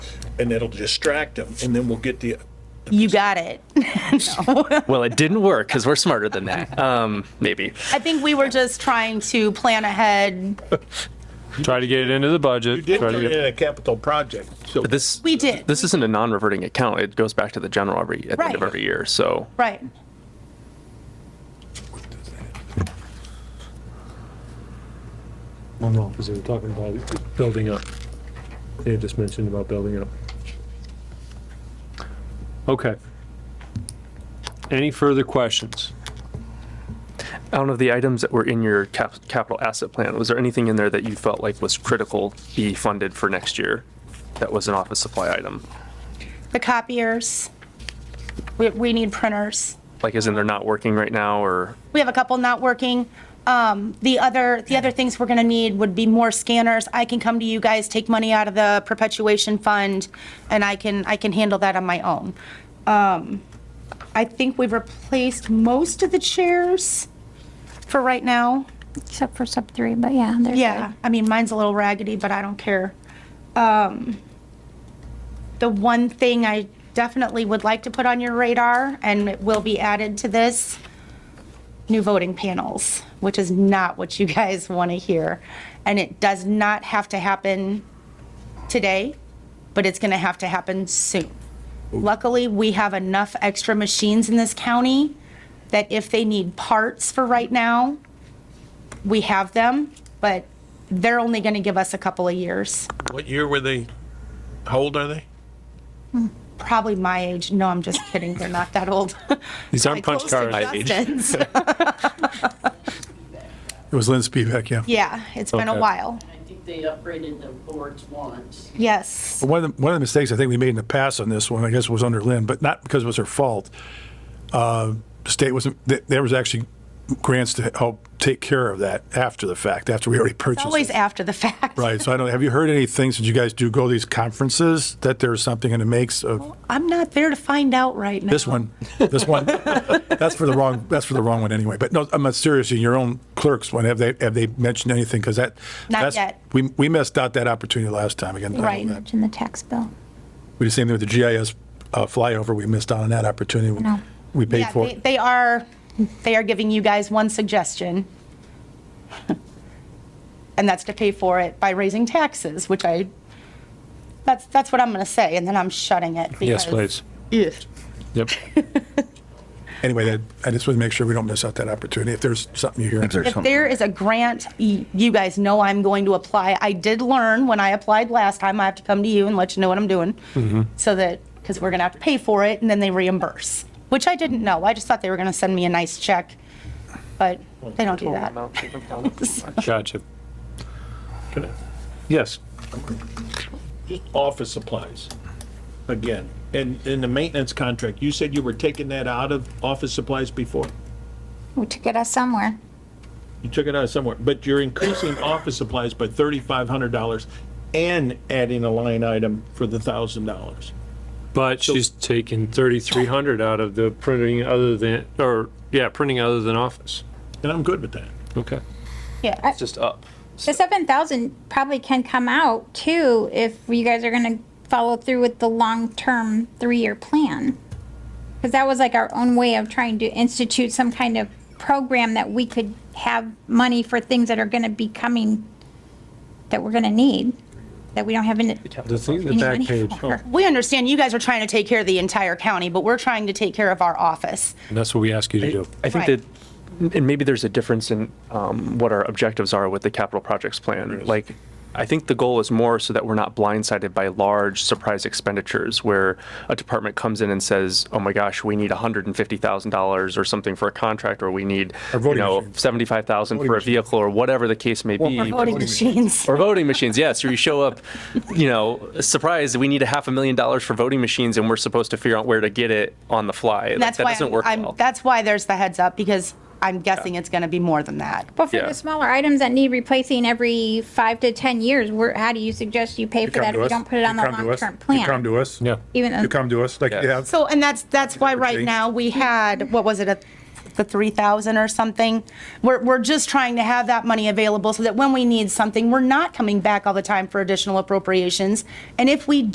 and it'll distract them, and then we'll get the, You got it. Well, it didn't work because we're smarter than that. Um, maybe. I think we were just trying to plan ahead. Try to get it into the you budget. did try to turn get- in a capital project, so. But this We did. This isn't a non-reverting account. It goes back to the general every at the end of Right. every year. So Right. Oh, no, because they were talking about it building up. They had just mentioned about building up. Okay. Any further questions? out of the items that were in your cap- capital asset plan, was there anything in there that you felt like was critical be funded for next year? That was an office supply item. The copiers. We, we need printers. Like, isn't they're not working right now, or We have a couple not working. Um, the other, the other things we're gonna need would be more scanners. I can come to you guys, take money out of the perpetuation fund, and I can, I can handle that on my own. Um, I think we've replaced most of the chairs for right now. except for sub three, but yeah, they're Yeah, I mean, mine's a little raggedy, but I don't care. Um, the one thing I definitely would like to put on your radar, and it will be added to this, new voting panels, which is not what you guys want to hear. And it does not have to happen today, but it's going to have to happen soon. Luckily, we have enough extra machines in this county that if they need parts for right now, we have them, but they're only going to give us a couple of years. What year were they? How old are they? Probably my age. No, I'm just kidding. They're not that old. These aren't punch Close to cards. Justin's. It was Lynn Spivak, yeah. Yeah, it's been a Okay. while. I think they upgraded the boards once. Yes. One of the, one of the mistakes I think we made in the past on this one, I guess, was under Lynn, but not because it was her fault. Uh, the state wasn't, th- there was actually grants to help take care of that after the fact, after we already purchased Always it. after the fact. Right, so I don't, have you heard anything since you guys do go to these conferences, that there's something in the makes of I'm not there to find out right now. this one, this one? That's for the wrong, that's for the wrong one anyway, but no, I'm not seriously, your own clerks, one, have they, have they mentioned anything? Because that. Not that's- yet. We, we missed out that opportunity last time again. I don't Right. know. good. In the tax bill. We did the same thing with the GIS uh, flyover. We missed out on that opportunity. No. We paid Yeah, for they, it. they are, they are giving you guys one suggestion. And that's to pay for it by raising taxes, which I, that's, that's what I'm going to say, and then I'm shutting it. Yes, because- please. Yep. Anyway, that- I just want to make sure we don't miss out that opportunity. If there's something you hear. If there is a grant, y- you guys know I'm going to apply. I did learn when I applied last time, I have to come to you and let you know what I'm doing. Mm-hmm. So that, because we're going to have to pay for it and then they reimburse, which I didn't know. I just thought they were going to send me a nice check, but they don't do that. Gotcha. Yes. Just office supplies, again, and in the maintenance contract, you said you were taking that out of office supplies before? We took it out somewhere. You took it out somewhere, but you're increasing office supplies by thirty-five hundred dollars and adding a line item for the thousand dollars. But she's taking 3,300 out of the printing other than, or, yeah, printing other than office. And I'm good with that. Okay. Yeah. just up? The seven thousand probably can come out too if you guys are gonna follow through with the long-term three-year plan. Because that was like our own way of trying to institute some kind of program that we could have money for things that are gonna be coming, that we're gonna need, that we don't have any. The thing, the any back money page, Oh. for. We understand you guys are trying to take care of the entire county, but we're trying to take care of our office. and that's what we ask you to do. I think Right. that, and maybe there's a difference in um, what our objectives are with the capital projects plan. Like, I think the goal is more so that we're not blindsided by large surprise expenditures where a department comes in and says, oh my gosh, we need $150,000 or something for a contract, or we need, you voting know, machines. 75,000 for a vehicle, or whatever the case may be. Voting machines. Or voting machines, yes. Or you show up, you know, surprised. We need a half a million dollars for voting machines, and we're supposed to figure out where to get it on the fly. Like, That's that why, doesn't I'm- work I'm, well. that's why there's the heads up, because I'm guessing it's going to be more than that. But for Yeah. the smaller items that need replacing every five to 10 years, where, how do you suggest you pay for come that to if you us. don't put it on the You come to us. long-term You come plan? to us. Yeah. Even though- You come to us, like, Yes. yeah. So, and that's, that's why right Change. now we had, what was it, a- the 3,000 or something? We're, we're just trying to have that money available so that when we need something, we're not coming back all the time for additional appropriations. And if we